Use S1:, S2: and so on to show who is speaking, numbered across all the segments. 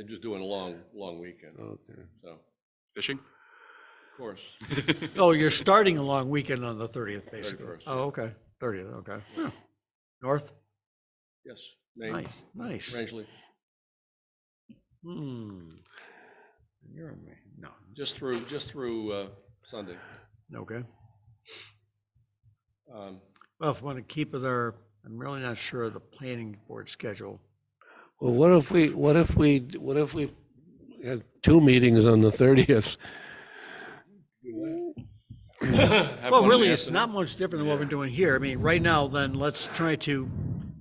S1: They're just doing a long, long weekend,
S2: Okay.
S1: so,
S3: Fishing?
S1: of course.
S4: Oh, you're starting a long weekend on the thirtieth, basically.
S1: 31st.
S4: Oh, okay, thirtieth, okay. Huh. North,
S1: Yes. Maine,
S4: nice, nice.
S1: Rangeley,
S4: Hmm. You're, ama- no,
S1: just through, just through uh, Sunday.
S4: okay.
S1: Um,
S4: Well, if we want to keep with our, I'm really not sure of the planning board schedule.
S2: Well, what if we, what if we, what if we had two meetings on the thirtieth?
S1: have one in
S4: Well,
S1: the
S4: really, it's not
S1: afternoon.
S4: much different than what we're doing here. I mean, right now, then, let's try to,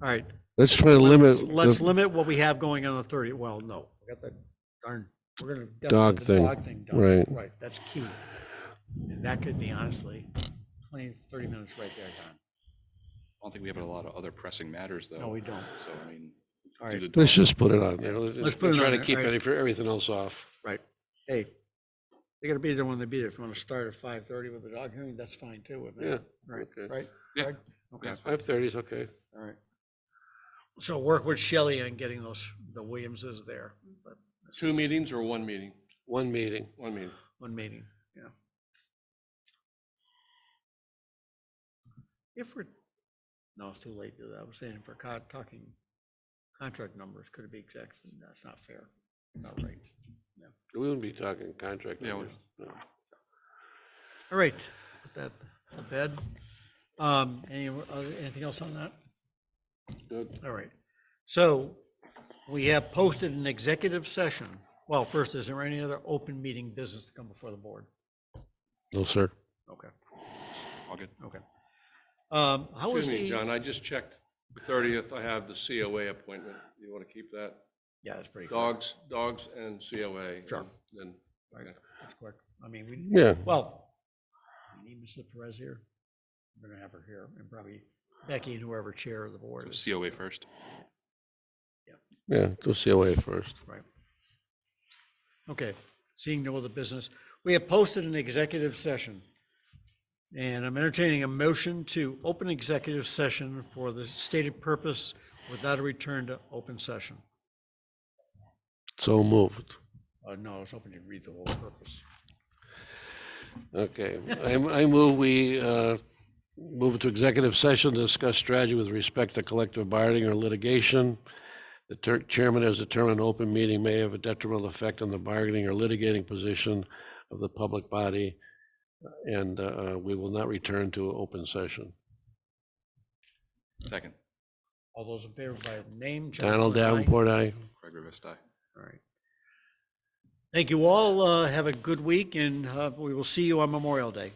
S4: all right,
S2: Let's try to limit
S4: let's- let's
S2: the
S4: limit what we have going on the thirtieth. Well, no, we got that darn, we're gonna. get
S2: Dog
S4: the
S2: thing,
S4: Dog thing done.
S2: right.
S4: Right, that's key. And that could be honestly, twenty, thirty minutes right there, Don.
S3: I don't think we have a lot of other pressing matters, though.
S4: No, we don't.
S3: So, I mean.
S4: All right.
S3: do the-
S2: Let's just put it on there.
S4: Let's put it
S2: Try
S4: on
S2: to
S4: there,
S2: keep
S4: right.
S2: any, for everything else off.
S4: Right. Hey, they gotta be there when they be there. If you wanna start at five thirty with the dog hearing, that's fine too. with me.
S2: Yeah,
S4: Right,
S2: okay.
S4: right?
S3: Yeah,
S4: Greg? Okay,
S3: that's
S2: Five thirty is okay.
S4: all right. So work with Shelley on getting those, the Williamses there, but
S1: Two meetings or one meeting?
S2: One meeting.
S1: One meeting.
S4: one meeting, yeah. If we're, no, it's too late, to do that. I was saying if we're co- talking contract numbers, could it be exact, that's not fair, not right.
S2: We wouldn't be talking contract.
S3: Yeah, we-
S2: numbers, no.
S4: All right, put that to bed. Um, any, other- anything else on that?
S2: Good.
S4: All right. So we have posted an executive session. Well, first, is there any other open meeting business to come before the board?
S2: No, sir.
S4: Okay,
S3: All good.
S4: okay. Um, how was
S1: Excuse me,
S4: the?
S1: John, I just checked. Thirtieth, I have the COA appointment. You want to keep that?
S4: Yeah, it's pretty quick.
S1: Dogs, dogs and COA.
S4: Sure.
S1: Then,
S4: It's quick. I mean, we,
S2: Yeah,
S4: well, we need Mrs. Perez here. We're gonna have her here and probably Becky and whoever chair of the board is.
S3: So COA first.
S2: yeah, go COA first.
S4: Right. Okay, seeing no other business, we have posted an executive session. And I'm entertaining a motion to open executive session for the stated purpose without a return to open session.
S2: So moved.
S4: Uh, no, I was hoping you'd read the whole purpose.
S2: Okay, I, I move we, uh, move to executive session to discuss strategy with respect to collective bargaining or litigation. The ter- chairman has determined an open meeting may have a detrimental effect on the bargaining or litigating position of the public body. And, uh, we will not return to open session.
S3: Second.
S4: All those in favor by name. John
S2: Donald
S4: Flynn, aye.
S2: Davenport, aye.
S3: Craig Rivers, aye.
S4: All right. Thank you all. Uh, have a good week and, uh, we will see you on Memorial Day.